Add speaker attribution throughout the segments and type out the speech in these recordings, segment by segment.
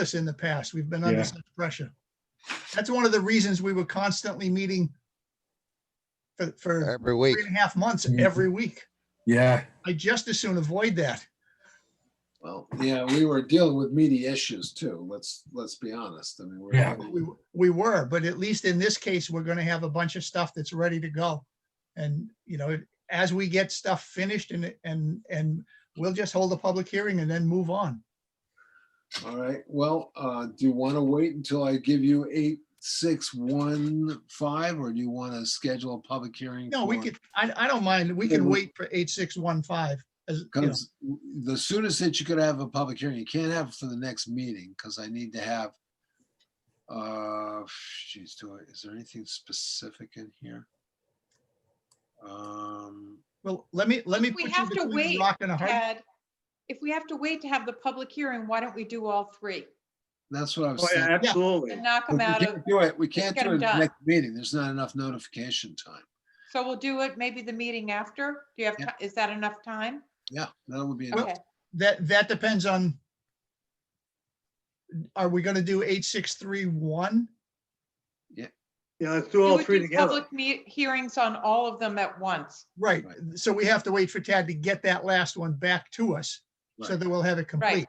Speaker 1: us in the past. We've been under
Speaker 2: Yeah.
Speaker 1: such pressure. That's one of the reasons we were constantly meeting for, for
Speaker 3: every week.
Speaker 1: three and a half months
Speaker 2: Mhm.
Speaker 1: every week.
Speaker 2: Yeah,
Speaker 1: I just as soon avoid that.
Speaker 4: Well, yeah, we were dealing with media issues too. Let's, let's be honest. I mean, we're,
Speaker 2: Yeah.
Speaker 1: We,
Speaker 4: having-
Speaker 1: we were, but at least in this case, we're gonna have a bunch of stuff that's ready to go. And, you know, as we get stuff finished and, and, and we'll just hold a public hearing and then move on.
Speaker 4: all right, well, uh, do you want to wait until I give you eight, six, one, five, or do you want to schedule a public hearing?
Speaker 1: No, we
Speaker 4: for-
Speaker 1: could, I, I don't mind. We can wait for eight, six, one, five. As, you know,
Speaker 4: Because the soonest that you could have a public hearing, you can't have for the next meeting, because I need to have. Uh, geez, do I, is there anything specific in here? Um,
Speaker 1: well, let me, let me.
Speaker 5: We
Speaker 1: put you
Speaker 5: have to
Speaker 1: between a
Speaker 5: wait,
Speaker 1: Rock and a hard.
Speaker 5: Ted, if we have to wait to have the public hearing, why don't we do all three?
Speaker 4: that's what I was
Speaker 2: oh,
Speaker 4: saying.
Speaker 2: yeah, absolutely.
Speaker 5: And knock
Speaker 4: But
Speaker 5: them out
Speaker 4: We
Speaker 5: of,
Speaker 4: can't do it, we can't
Speaker 5: get
Speaker 4: do it
Speaker 5: 'em
Speaker 4: at the
Speaker 5: done.
Speaker 4: next meeting, there's not enough notification time.
Speaker 5: so we'll do it maybe the meeting after? Do you have,
Speaker 4: Yeah.
Speaker 5: ti- is that enough time?
Speaker 4: Yeah, that would be, enough.
Speaker 5: Okay,
Speaker 1: That, that depends on. Are we gonna do eight, six, three, one?
Speaker 2: Yeah, let's do
Speaker 5: You
Speaker 2: all
Speaker 5: would
Speaker 2: three
Speaker 5: do
Speaker 2: together.
Speaker 5: Public me- hearings on all of them at once.
Speaker 1: Right,
Speaker 4: Right.
Speaker 1: so we have to wait for Tad to get that last one back to us, so
Speaker 4: Right.
Speaker 1: that we'll have it complete.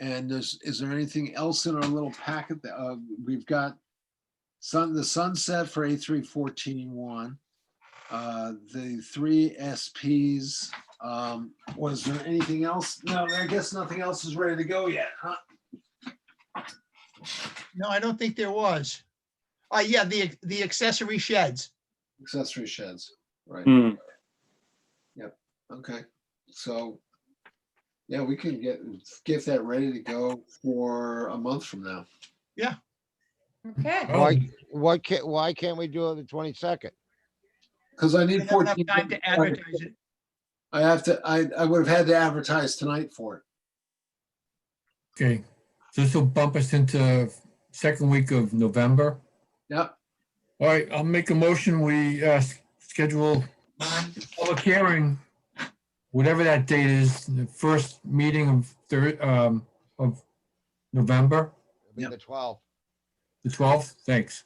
Speaker 4: and there's, is there anything else in our little packet that, uh, we've got? Sun, the sunset for A three fourteen one, uh, the three SPs, um, was there anything else? No, I guess nothing else is ready to go yet, huh?
Speaker 1: No, I don't think there was. Uh, yeah, the, the accessory sheds.
Speaker 4: Accessory sheds, right,
Speaker 2: Hmm,
Speaker 4: okay, so. Yeah, we can get, get that ready to go for a month from now.
Speaker 5: Okay,
Speaker 2: Oh.
Speaker 3: Why, why can't, why can't we do it the twenty-second?
Speaker 4: Because I
Speaker 1: We
Speaker 4: need
Speaker 1: have enough
Speaker 4: fourteen.
Speaker 1: time to advertise it.
Speaker 4: I have to, I, I would have had to advertise tonight for it.
Speaker 6: Okay, so this will bump us into second week of November.
Speaker 4: Yep,
Speaker 6: All right, I'll make a motion. We uh, s- schedule public hearing, whatever that date is, the first meeting of third, um, of November,
Speaker 3: Be
Speaker 4: Yep.
Speaker 3: the twelfth,
Speaker 6: the 12th. Thanks.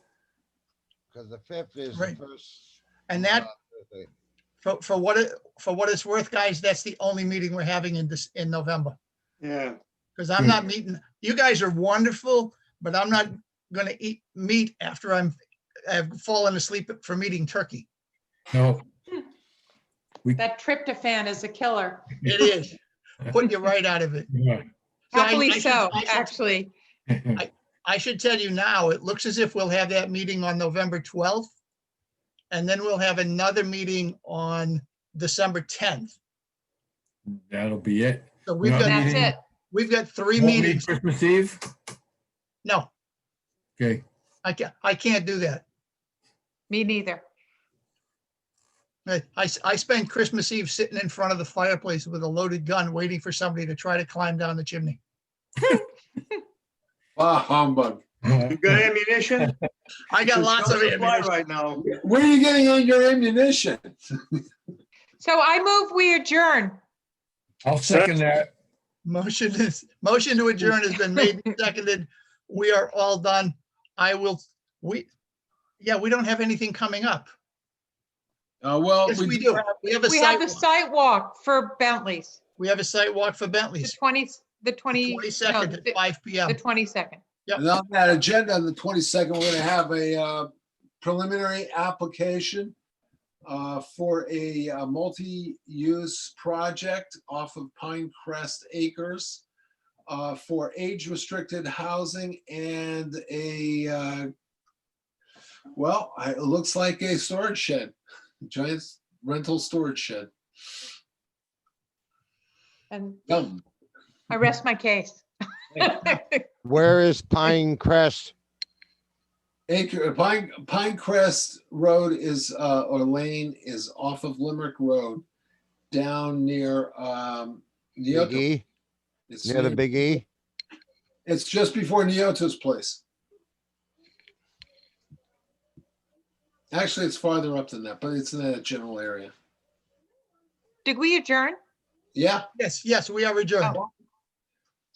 Speaker 3: because the fifth is the
Speaker 1: Right.
Speaker 3: first.
Speaker 1: And that,
Speaker 3: uh, Thursday.
Speaker 1: for, for what, it for what it's worth, guys, that's the only meeting we're having in this, in November.
Speaker 2: Yeah,
Speaker 1: Because I'm
Speaker 6: Hmm.
Speaker 1: not meeting, you guys are wonderful, but I'm not gonna eat meat after I'm, I've fallen asleep from eating turkey.
Speaker 6: No,
Speaker 5: that tryptophan is a killer.
Speaker 1: It is, putting you right out of it.
Speaker 6: yeah.
Speaker 1: So I-
Speaker 5: Happily
Speaker 1: I should-
Speaker 5: so,
Speaker 1: I should-
Speaker 5: actually.
Speaker 1: I should tell you now, it looks as if we'll have that meeting on November 12th. And then we'll have another meeting on December 10th.
Speaker 6: that'll be it.
Speaker 1: So we've
Speaker 6: Another
Speaker 1: got,
Speaker 5: That's
Speaker 6: meeting.
Speaker 5: it.
Speaker 1: we've got three
Speaker 6: Won't meet
Speaker 1: meetings.
Speaker 6: Christmas Eve?
Speaker 1: No,
Speaker 6: Okay,
Speaker 1: I can't, I can't do that.
Speaker 5: Me neither.
Speaker 1: I, I s- I spend Christmas Eve sitting in front of the fireplace with a loaded gun, waiting for somebody to try to climb down the chimney.
Speaker 4: ah, humbug.
Speaker 2: you got ammunition?
Speaker 1: I got
Speaker 2: There's
Speaker 1: lots
Speaker 2: no
Speaker 1: of
Speaker 2: supply
Speaker 1: ammunition.
Speaker 2: Right now.
Speaker 4: Where are you getting all your ammunition?
Speaker 5: So I move we adjourn.
Speaker 6: I'll second that.
Speaker 1: Motion is, motion to adjourn has been made and seconded. We are all done. I will, we, yeah, we don't have anything coming up.
Speaker 4: Uh, well,
Speaker 1: Yes, we
Speaker 4: we,
Speaker 1: do. We have a
Speaker 5: We have
Speaker 1: site,
Speaker 5: the
Speaker 1: walk.
Speaker 5: site walk for Bentley's,
Speaker 1: we have a site walk for
Speaker 5: the
Speaker 1: Bentley's,
Speaker 5: 20, the 20. no,
Speaker 1: twenty-second
Speaker 5: the-
Speaker 1: at five P
Speaker 5: The
Speaker 1: M.
Speaker 5: 22nd.
Speaker 4: and on that agenda on the twenty-second, we're gonna have a uh, preliminary application uh, for a uh, multi-use project off of Pine Crest Acres uh, for age-restricted housing and a, uh, well, I- it looks like a storage shed, giant rental storage shed.
Speaker 5: And
Speaker 4: Dumb.
Speaker 5: I rest my case.
Speaker 3: Where is Pine Crest?
Speaker 4: Acre, uh, Pine, Pine Crest Road is, uh, or lane is off of Limerick Road, down near, um,
Speaker 3: Big
Speaker 4: Neoto.
Speaker 3: E,
Speaker 4: It's
Speaker 3: near the
Speaker 4: near-
Speaker 3: Big E?
Speaker 4: It's just before Neoto's place. Actually, it's farther up than that, but it's in that general area.
Speaker 5: Did we adjourn?
Speaker 4: Yeah,
Speaker 1: Yes, yes, we are adjourned.
Speaker 5: Oh,